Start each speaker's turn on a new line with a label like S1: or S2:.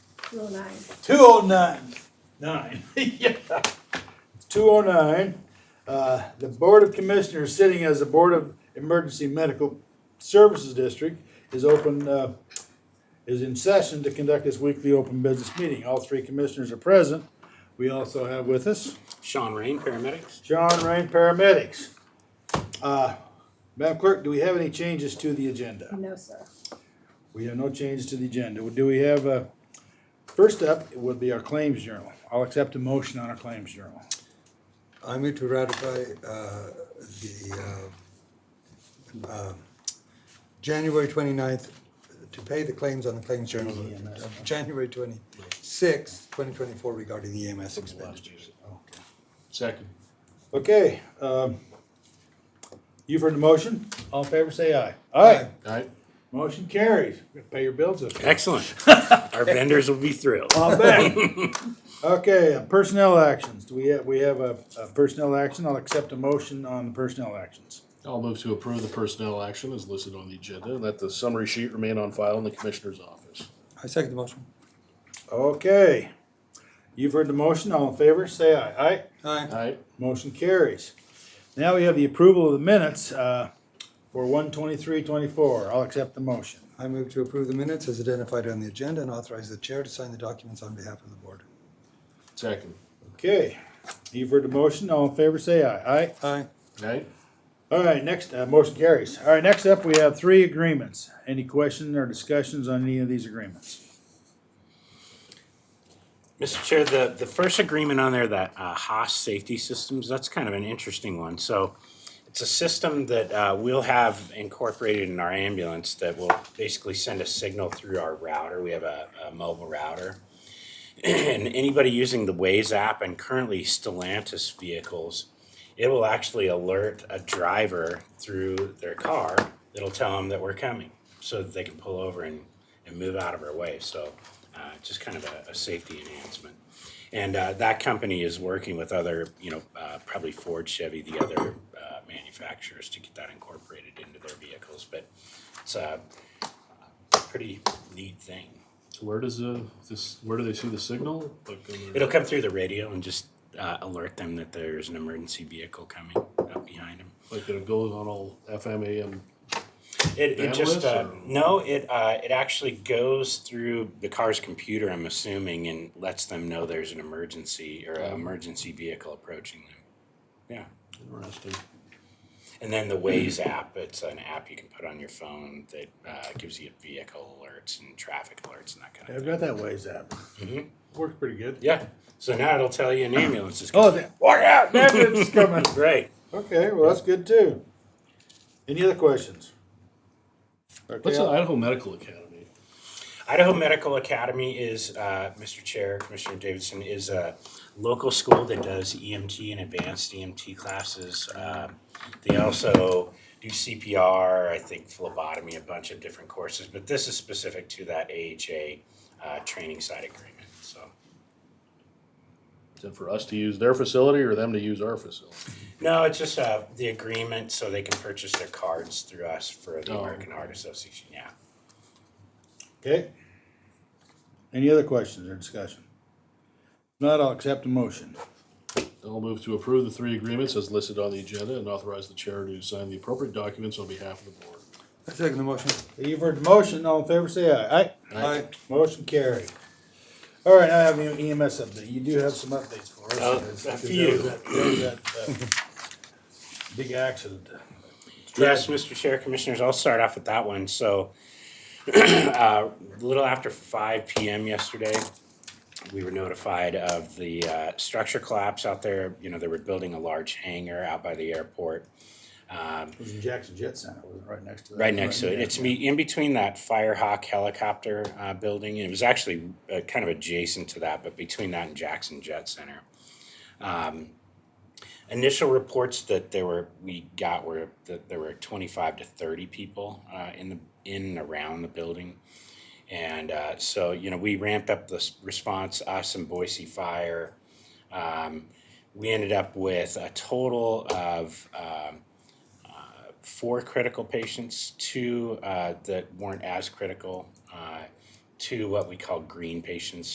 S1: Rule nine.
S2: Two oh nine, nine, yeah. Two oh nine, uh, the Board of Commissioners sitting as the Board of Emergency Medical Services District is open, uh, is in session to conduct this weekly open business meeting. All three commissioners are present. We also have with us
S3: Sean Rain, paramedics.
S2: John Rain, paramedics. Uh, Madam Clerk, do we have any changes to the agenda?
S1: No, sir.
S2: We have no changes to the agenda. Do we have, uh, first up would be our claims journal. I'll accept a motion on our claims journal.
S4: I move to ratify uh, the uh, um, January 29th to pay the claims on the claims journal
S2: EMS.
S4: of January 26th, 2024 regarding the E EMS expenditures.
S5: Second.
S2: Okay, um, you've heard the motion. All in favor, say aye. Aye.
S5: Alright.
S2: Motion carries. We're gonna Pay your bills this week.
S3: Excellent. Our vendors will be thrilled.
S2: I'll bet. Okay, uh, personnel actions. Do we have, we have a a personnel action? I'll accept a motion on the personnel actions.
S5: I'll move to approve the personnel action as listed on the agenda. Let the summary sheet remain on file in the commissioner's office.
S4: I second the motion.
S2: Okay, you've heard the motion. All in favor, say aye. Aye.
S4: Aye.
S5: Alright,
S2: Motion carries. Now we have the approval of the minutes uh, for one twenty-three twenty-four. I'll accept the motion.
S4: I move to approve the minutes as identified on the agenda and authorize the chair to sign the documents on behalf of the board.
S5: second.
S2: Okay, you've heard the motion. All in favor, say aye. Aye.
S4: Aye.
S5: Alright,
S2: All right, next, uh, motion carries. All right, next up, we have three agreements. Any questions or discussions on any of these agreements?
S3: Mr. Chair, the, the first agreement on there, that uh, Haas Safety Systems, that's kind of an interesting one. So it's a system that uh, we'll have incorporated in our ambulance that will basically send a signal through our router. We have a, a mobile router. And anybody using the Waze app and currently Stellantis vehicles, it will actually alert a driver through their car. It'll tell them that we're coming so that they can pull over and, and move out of our way. So uh, just kind of a, a safety enhancement. And uh, that company is working with other, you know, uh, probably Ford, Chevy, the other uh, manufacturers to get that incorporated into their vehicles. But it's a pretty neat thing.
S5: so where does the, this, where do they see the signal? Like uh, on
S3: It'll
S5: their-
S3: come through the radio and just uh, alert them that there's an emergency vehicle coming up behind them.
S5: Like it goes on all FM, AM?
S3: It, it just
S5: Bandwidth
S3: uh,
S5: or-
S3: no. It uh, it actually goes through the car's computer. I'm assuming and lets them know there's an emergency or an emergency vehicle approaching them. Yeah,
S5: Interesting.
S3: and then the Waze app. It's an app you can put on your phone that uh, gives you vehicle alerts and traffic alerts and that kind of
S2: I've
S3: thing.
S2: got that Waze app. Works pretty good.
S3: Yeah. So now it'll tell you an ambulance is coming.
S2: Oh, that, watch out, ambulance is coming.
S3: Right.
S2: Okay, well, that's good too. Any other questions?
S5: What's
S2: Okay,
S5: the Idaho Medical Academy?
S3: Idaho Medical Academy is, uh, Mr. Chair, Commissioner Davidson, is a local school that does EMT and advanced EMT classes. Um, They also do CPR, I think phlebotomy, a bunch of different courses, but this is specific to that AHA uh, training side agreement, so.
S5: Is it for us to use their facility or them to use our facility?
S3: No, it's just uh, the agreement so they can purchase their cards through us for the
S5: Oh.
S3: American Heart Association, yeah.
S2: Okay. Any other questions or discussion? If not, I'll accept a motion.
S5: I'll move to approve the three agreements as listed on the agenda and authorize the chair to sign the appropriate documents on behalf of the board.
S4: I second the motion.
S2: You've heard the motion, all in favor, say aye. Aye.
S4: Aye.
S2: Motion carried. All right, now I have an EMS update. You do have some updates for us.
S3: Oh, a
S2: There
S3: few.
S2: was that- there was that, uh, Big accident.
S3: Yes, Mr. Chair, Commissioners, I'll start off with that one. So, uh, a little after five PM yesterday, we were notified of the uh, structure collapse out there. You know, they were building a large hangar out by the airport. Um,
S2: It was in Jackson Jet Center, it was right next to that.
S3: Right next to it. It's me, in between that Firehawk helicopter, uh, building, and it was actually, uh, kind of adjacent to that, but between that and Jackson Jet Center. Um, Initial reports that there were, we got were, that there were twenty-five to thirty people, uh, in the, in and around the building. And, uh, so, you know, we ramped up the s- response, us and Boise Fire. Um, we ended up with a total of, um, four critical patients, two uh, that weren't as critical, uh, two what we call green patients,